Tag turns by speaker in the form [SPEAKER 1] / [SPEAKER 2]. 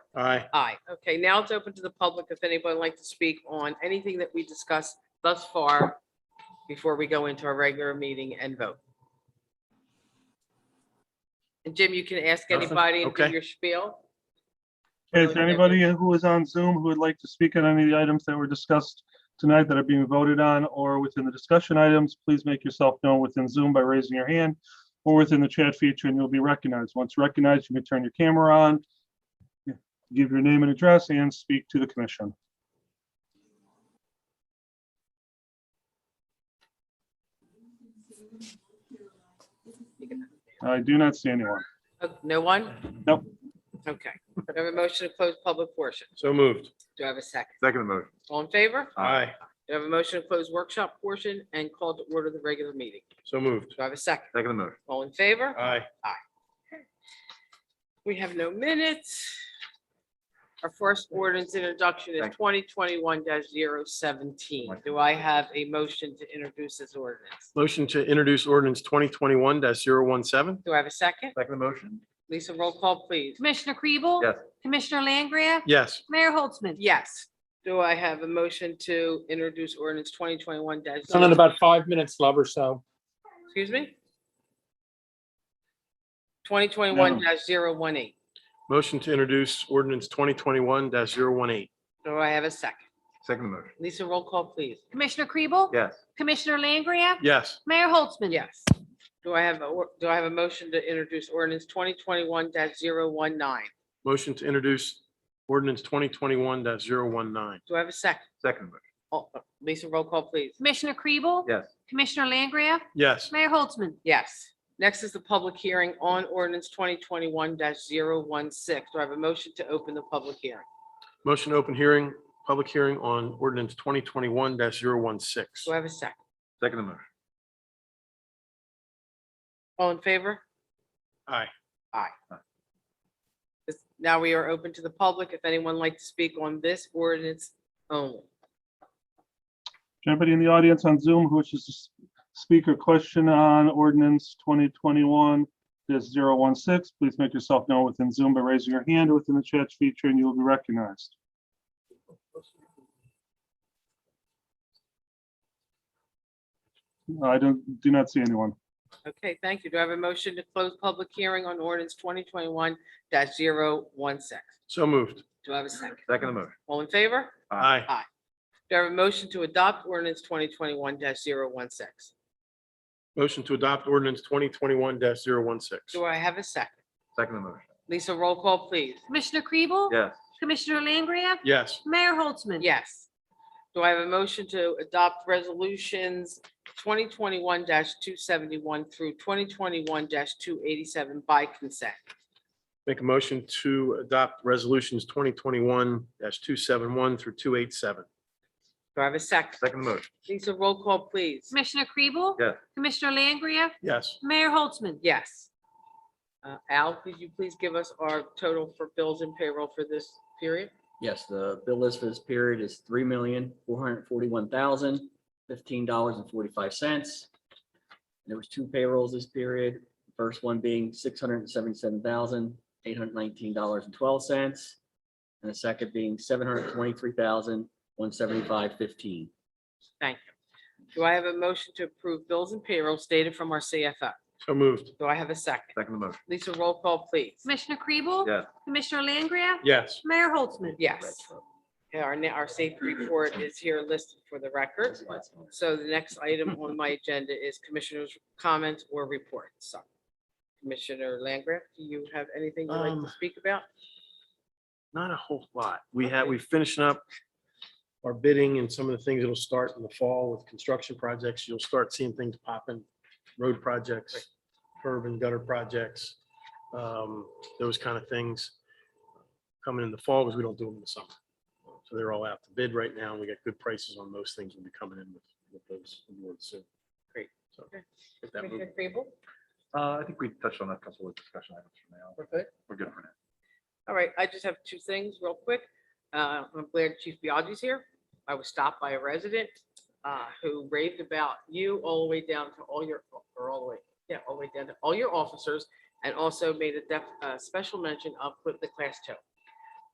[SPEAKER 1] Aye.
[SPEAKER 2] Aye. Okay, now it's open to the public if anyone would like to speak on anything that we discussed thus far before we go into our regular meeting and vote. And Jim, you can ask
[SPEAKER 1] Nothing?
[SPEAKER 2] anybody and do
[SPEAKER 1] Okay.
[SPEAKER 2] your spiel.
[SPEAKER 3] Is there anybody who is on Zoom who would like to speak on any of the items that were discussed tonight that are being voted on or within the discussion items? Please make yourself known within Zoom by raising your hand or within the chat feature and you'll be recognized. Once recognized, you can turn your camera on, give your name and address and speak to the commission. I do not see anyone.
[SPEAKER 2] Uh, No one?
[SPEAKER 3] Nope.
[SPEAKER 2] Okay. Do I have a motion to close public portion?
[SPEAKER 1] So moved.
[SPEAKER 2] Do I have a second?
[SPEAKER 4] Second motion.
[SPEAKER 2] All in favor?
[SPEAKER 1] Aye.
[SPEAKER 2] Do I have a motion to close workshop portion and call to order the regular meeting?
[SPEAKER 1] So moved.
[SPEAKER 2] Do I have a second?
[SPEAKER 4] Second motion.
[SPEAKER 2] All in favor?
[SPEAKER 1] Aye.
[SPEAKER 2] We have no minutes. Our first ordinance introduction is
[SPEAKER 4] Thank
[SPEAKER 2] twenty twenty-one 17 Do I have a motion to introduce this ordinance?
[SPEAKER 1] Motion to introduce ordinance twenty twenty-one 17
[SPEAKER 2] Do I have a second?
[SPEAKER 4] Second motion?
[SPEAKER 2] Lisa, roll call, please.
[SPEAKER 5] Commissioner Kribel?
[SPEAKER 4] Yes.
[SPEAKER 5] Commissioner Langria?
[SPEAKER 1] Yes.
[SPEAKER 5] Mayor Holtzman?
[SPEAKER 2] Yes. Do I have a motion to introduce ordinance twenty twenty-one dash?
[SPEAKER 6] Done in about five minutes, love or so.
[SPEAKER 2] Excuse me? Twenty twenty-one
[SPEAKER 3] No.
[SPEAKER 2] 18
[SPEAKER 1] Motion to introduce ordinance twenty twenty-one 18
[SPEAKER 2] Do I have a second?
[SPEAKER 4] Second motion.
[SPEAKER 2] Lisa, roll call, please.
[SPEAKER 5] Commissioner Kribel?
[SPEAKER 4] Yes.
[SPEAKER 5] Commissioner Langria?
[SPEAKER 1] Yes.
[SPEAKER 5] Mayor Holtzman?
[SPEAKER 2] Yes. Do I have, a or- do I have a motion to introduce ordinance twenty twenty-one 19
[SPEAKER 1] Motion to introduce ordinance twenty twenty-one 19
[SPEAKER 2] Do I have a second?
[SPEAKER 4] Second motion.
[SPEAKER 2] Oh, Lisa, roll call, please.
[SPEAKER 5] Commissioner Kribel?
[SPEAKER 4] Yes.
[SPEAKER 5] Commissioner Langria?
[SPEAKER 1] Yes.
[SPEAKER 5] Mayor Holtzman?
[SPEAKER 2] Yes. Next is the public hearing on ordinance twenty twenty-one 16 Do I have a motion to open the public hearing?
[SPEAKER 1] Motion to open hearing, public hearing on ordinance twenty twenty-one 16
[SPEAKER 2] Do I have a second?
[SPEAKER 4] Second motion.
[SPEAKER 2] All in favor?
[SPEAKER 1] Aye.
[SPEAKER 2] This- Now we are open to the public. If anyone would like to speak on this ordinance only.
[SPEAKER 3] Is there Anybody in the audience on Zoom who wishes to s- speak or question on ordinance twenty twenty-one 16 please make yourself known within Zoom by raising your hand within the chat feature and you will be recognized. I don't, do not see anyone.
[SPEAKER 2] Okay, thank you. Do I have a motion to close public hearing on ordinance twenty twenty-one 16
[SPEAKER 1] So moved.
[SPEAKER 2] Do I have a second?
[SPEAKER 4] Second motion.
[SPEAKER 2] All in favor?
[SPEAKER 1] Aye.
[SPEAKER 2] Do I have a motion to adopt ordinance twenty twenty-one 16
[SPEAKER 1] Motion to adopt ordinance twenty twenty-one 16
[SPEAKER 2] Do I have a second?
[SPEAKER 4] Second motion.
[SPEAKER 2] Lisa, roll call, please.
[SPEAKER 5] Commissioner Kribel?
[SPEAKER 4] Yes.
[SPEAKER 5] Commissioner Langria?
[SPEAKER 1] Yes.
[SPEAKER 5] Mayor Holtzman?
[SPEAKER 2] Yes. Do I have a motion to adopt resolutions twenty twenty-one two seventy-one through twenty twenty-one two eighty-seven by consent?
[SPEAKER 1] Make a motion to adopt resolutions twenty twenty-one two seven one through two eight seven.
[SPEAKER 2] Do I have a second?
[SPEAKER 4] Second motion.
[SPEAKER 2] Lisa, roll call, please.
[SPEAKER 5] Commissioner Kribel?
[SPEAKER 4] Yes.
[SPEAKER 5] Commissioner Langria?
[SPEAKER 1] Yes.
[SPEAKER 5] Mayor Holtzman?
[SPEAKER 2] Yes. Uh, Al, could you please give us our total for bills and payroll for this period?
[SPEAKER 7] Yes, the bill list for this period is three million, four hundred forty-one thousand, fifteen dollars and forty-five cents. There was two payrolls this period, first one being six hundred seventy-seven thousand, eight hundred nineteen dollars and twelve cents. And the second being seven hundred twenty-three thousand, one seventy-five fifteen.
[SPEAKER 2] Thank you. Do I have a motion to approve bills and payroll stated from our CFO?
[SPEAKER 1] So moved.
[SPEAKER 2] Do I have a second?
[SPEAKER 4] Second motion.
[SPEAKER 2] Lisa, roll call, please.
[SPEAKER 5] Commissioner Kribel?
[SPEAKER 4] Yes.
[SPEAKER 5] Commissioner Langria?
[SPEAKER 1] Yes.
[SPEAKER 5] Mayor Holtzman?
[SPEAKER 2] Yes. Yeah, Our, ne- our safety report is here listed for the record. So the next item on my agenda is commissioners' comments or reports. So, Commissioner Langgraf, do you have anything you'd like
[SPEAKER 1] Um,
[SPEAKER 2] to speak about?
[SPEAKER 1] Not a whole lot. We had, we finishing up our bidding and some of the things that'll start in the fall with construction projects. You'll start seeing things popping. Road projects, curb and gutter projects, um, those kind of things coming in the fall because we don't do them in the summer. So they're all out to bid right now. and We got good prices on most things. We'll be coming in with, with those awards soon.
[SPEAKER 2] Great.
[SPEAKER 1] So.
[SPEAKER 2] Okay.
[SPEAKER 1] get that moving.
[SPEAKER 2] Commissioner Crable?
[SPEAKER 4] Uh, I think we touched on a couple of discussion items for now.
[SPEAKER 2] good.
[SPEAKER 4] We're good for now.
[SPEAKER 2] All right, I just have two things real quick. Uh, I'm glad Chief Biagi's here. I was stopped by a resident uh, who raved about you all the way down to all your, or all the way, yeah, all the way down to all your officers and also made a def, uh, special mention of Quit the Class Two.